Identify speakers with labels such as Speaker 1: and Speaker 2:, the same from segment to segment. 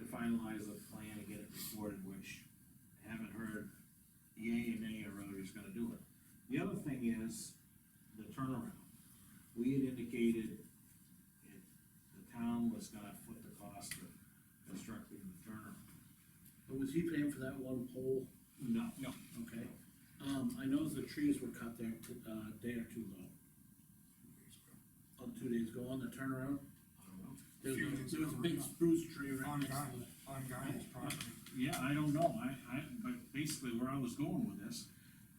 Speaker 1: finalize the plan and get it recorded, which I haven't heard yay and nay or whether he's gonna do it. The other thing is the turnaround. We had indicated it, the town was gonna foot the cost of constructing the turnaround.
Speaker 2: But was he paying for that one pole?
Speaker 1: No.
Speaker 2: Okay. Um, I noticed the trees were cut there, uh, day or two ago. Oh, two days ago on the turnaround. There was,
Speaker 3: Few
Speaker 2: a-
Speaker 3: days
Speaker 2: there was a
Speaker 3: ago,
Speaker 2: big
Speaker 3: yeah.
Speaker 2: spruce tree right
Speaker 3: On
Speaker 2: next
Speaker 3: guy,
Speaker 2: to it.
Speaker 3: on guy's property.
Speaker 1: Yeah, I don't know, I, I, but basically where I was going with this,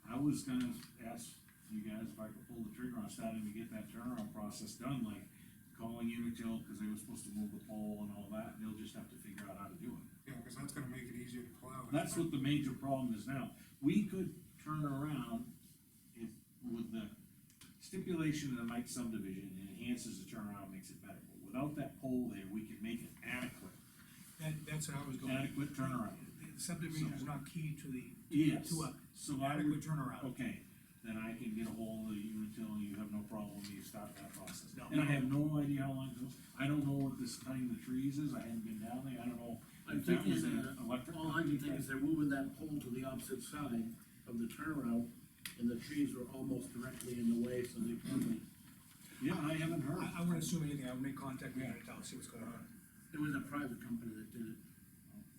Speaker 1: I was gonna ask you guys if I could pull the trigger on starting to get that turnaround process done, like calling Unitil, cause they were supposed to move the pole and all that, they'll just have to figure out how to do it.
Speaker 3: Yeah, cause that's gonna make it easier to plow.
Speaker 1: That's what the major problem is now, we could turn around if, with the stipulation of the Mike subdivision, it enhances the turnaround, makes it better, but without that pole there, we can make an adequate,
Speaker 4: That, that's what I was going.
Speaker 1: adequate turnaround.
Speaker 4: The Subdivision is not key to the.
Speaker 1: Yes,
Speaker 4: To a
Speaker 1: so I would
Speaker 4: adequate turnaround.
Speaker 1: Okay, then I can get a hold of you and tell you have no problem, you start that process.
Speaker 4: No.
Speaker 1: And I have no idea how long it goes, I don't know what this cutting the trees is, I hadn't been down there, I don't know.
Speaker 2: I'm
Speaker 1: if that was
Speaker 2: thinking,
Speaker 1: an
Speaker 2: uh,
Speaker 1: electric
Speaker 2: All I can think
Speaker 1: company.
Speaker 2: is they're moving that pole to the opposite side of the turnaround, and the trees were almost directly in the way, so they probably,
Speaker 1: Yeah, I haven't heard.
Speaker 4: I, I wouldn't assume anything, I would make contact with Unitil, see what's going on.
Speaker 2: it was a private company that did it.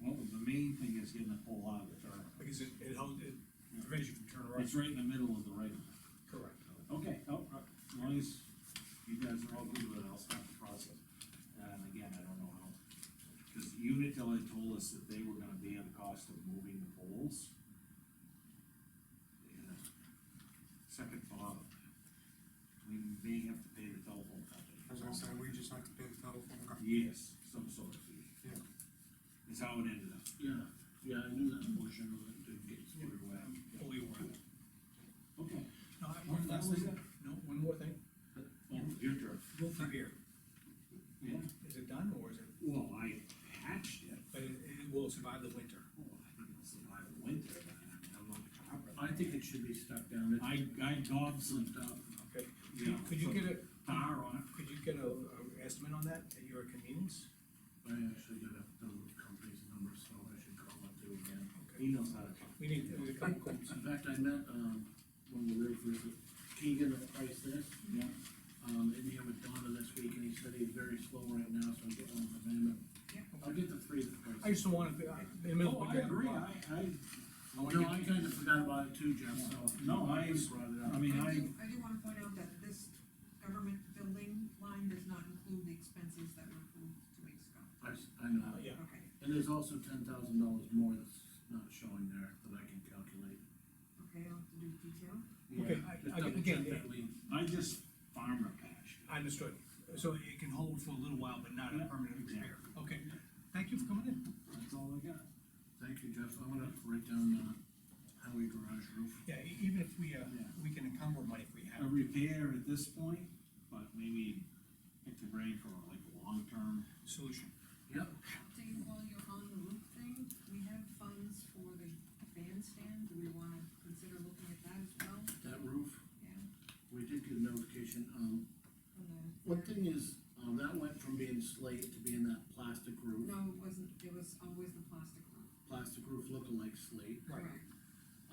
Speaker 1: Well, the main thing is getting the pole out of the turn.
Speaker 4: Because it, it held, it prevents you from turning around.
Speaker 1: It's right in the middle of the right.
Speaker 4: Correct.
Speaker 1: Okay, oh, uh, as long as you guys are all good with it, I'll start the process. And again, I don't know how, because Unitil had told us that they were gonna bear the cost of moving the poles. And, uh, Second thought, we may have to pay the telephone
Speaker 3: As I said,
Speaker 1: company.
Speaker 3: we just have to pay the telephone company.
Speaker 1: Yes, some sort of fee.
Speaker 3: Yeah.
Speaker 1: Is how it ended up.
Speaker 2: Yeah, yeah, I knew that portion of it didn't get squared away.
Speaker 4: Fully aware.
Speaker 1: Okay.
Speaker 4: No, I- one
Speaker 1: That
Speaker 4: last
Speaker 1: was
Speaker 4: thing,
Speaker 1: it?
Speaker 4: no, one more thing,
Speaker 1: Oh, your turn.
Speaker 4: Wolf Revere,
Speaker 1: Yeah.
Speaker 4: is it done or is it,
Speaker 1: Well, I patched it.
Speaker 4: but it, it will survive the winter?
Speaker 1: Well, I think it's survive the winter, but I mean, I'm not a carpenter.
Speaker 2: I think it should be stuck down, it's
Speaker 1: I, I Dobson,
Speaker 2: slipped up.
Speaker 4: Okay.
Speaker 1: Yeah.
Speaker 4: Could you get a,
Speaker 1: tar on
Speaker 4: could you get a, a estimate on that at your convenience?
Speaker 2: I actually got a, the company's number, so I should call up too again.
Speaker 1: it, he knows how to talk.
Speaker 4: We need, we need a couple quotes.
Speaker 2: In fact, I met, um, when we were with Keegan at Price there,
Speaker 1: Yeah.
Speaker 2: um, in here with Donna this week, and he said he's very slow right now, so I'll get one from him. I'll get the three that
Speaker 4: I
Speaker 2: price.
Speaker 4: just don't want to, in the middle
Speaker 1: No, Oh,
Speaker 4: Uh, of.
Speaker 1: I
Speaker 4: the
Speaker 1: agree,
Speaker 4: day,
Speaker 1: I, I,
Speaker 2: No, I kinda forgot about it too, Jeff, so.
Speaker 1: No, I-
Speaker 2: just Brought it
Speaker 1: I
Speaker 2: up.
Speaker 1: mean,
Speaker 5: I
Speaker 1: I,
Speaker 5: do, I do wanna point out that this government building line does not include the expenses that were approved two weeks ago.
Speaker 2: I, s- I know.
Speaker 4: Uh, Yeah,
Speaker 5: Okay,
Speaker 2: And there's also ten thousand dollars more that's not showing there that I can calculate.
Speaker 5: okay, I'll have to do detail.
Speaker 4: Okay,
Speaker 2: Yeah,
Speaker 4: I-
Speaker 2: just
Speaker 4: I-
Speaker 2: double
Speaker 4: again,
Speaker 2: check that we-
Speaker 1: I just farmer patched. it.
Speaker 4: I understood. So it can hold for a little while, but not a
Speaker 1: Yeah.
Speaker 4: permanent repair. Okay, thank you for coming in.
Speaker 1: That's all I got.
Speaker 2: Thank you, Jeff, I'm gonna write down, uh, highway garage roof.
Speaker 4: Yeah, e- even if we, uh,
Speaker 1: Yeah.
Speaker 4: we can encumber money if we have.
Speaker 1: A repair at this point, but maybe pick the brain for like a long term.
Speaker 4: Solution.
Speaker 2: Yep,
Speaker 5: Update while you're on the roof thing, we have funds for the bandstand, do we wanna consider looking at that as well?
Speaker 2: that roof,
Speaker 5: Yeah,
Speaker 2: we did get a notification, um,
Speaker 5: from the.
Speaker 2: one thing is, um, that went from being slate to being that plastic roof,
Speaker 5: No, it wasn't, it was always the plastic roof.
Speaker 2: plastic roof lookalike slate.
Speaker 4: Right.
Speaker 5: Correct.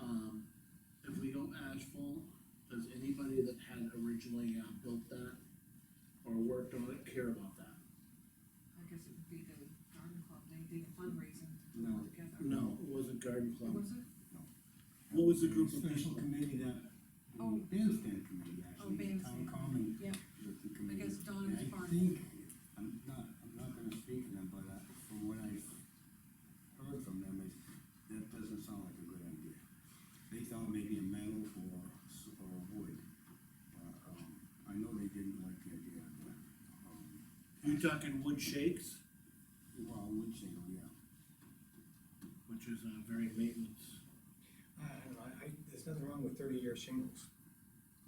Speaker 2: Um, if we go asphalt, does anybody that had originally, uh, built that or worked on it care about that?
Speaker 5: I guess it would be the garden club, they did a fundraising to put
Speaker 1: No.
Speaker 5: it together.
Speaker 2: No, it wasn't garden
Speaker 5: It
Speaker 2: club.
Speaker 5: Was it?
Speaker 2: What was the group of
Speaker 6: special
Speaker 2: people?
Speaker 6: committee that,
Speaker 5: Oh.
Speaker 6: bandstand committee,
Speaker 5: Oh,
Speaker 6: actually, the town
Speaker 5: bandstand.
Speaker 6: common.
Speaker 5: Yeah.
Speaker 6: was the committee.
Speaker 5: guess Don was
Speaker 6: And
Speaker 5: part
Speaker 6: I
Speaker 5: of
Speaker 6: think, I'm not, I'm not gonna speak to them, but, uh, from what I heard from them, is, that doesn't sound like a good idea. They thought maybe a metal or, s- or wood, but, um, I know they didn't like the idea, but, um,
Speaker 2: You talking wood shakes,
Speaker 6: well, wood shingle, yeah.
Speaker 2: which is, uh, very maintenance.
Speaker 4: I I don't know, Uh, I, I- there's nothing wrong with thirty-year shingles.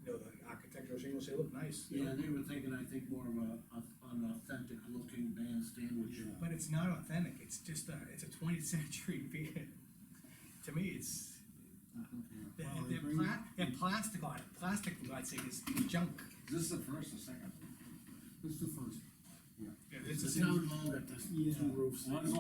Speaker 4: You know, the architectural shingles, they look nice. you know,
Speaker 2: Yeah, they were thinking, I think, more of a, a- an authentic looking bandstand, which,
Speaker 6: Yeah.
Speaker 4: But it's not authentic, it's just a, it's a twentieth century beer. To me, it's, they're,
Speaker 6: Well, it
Speaker 4: they're
Speaker 6: brings-
Speaker 4: pla- they're plastic on it, plastic, I'd say, is junk.
Speaker 1: Is this the first or second?
Speaker 6: It's the first, yeah.
Speaker 4: Yeah,
Speaker 2: the town hall got the two
Speaker 6: Yeah.
Speaker 2: roofs.
Speaker 1: One's on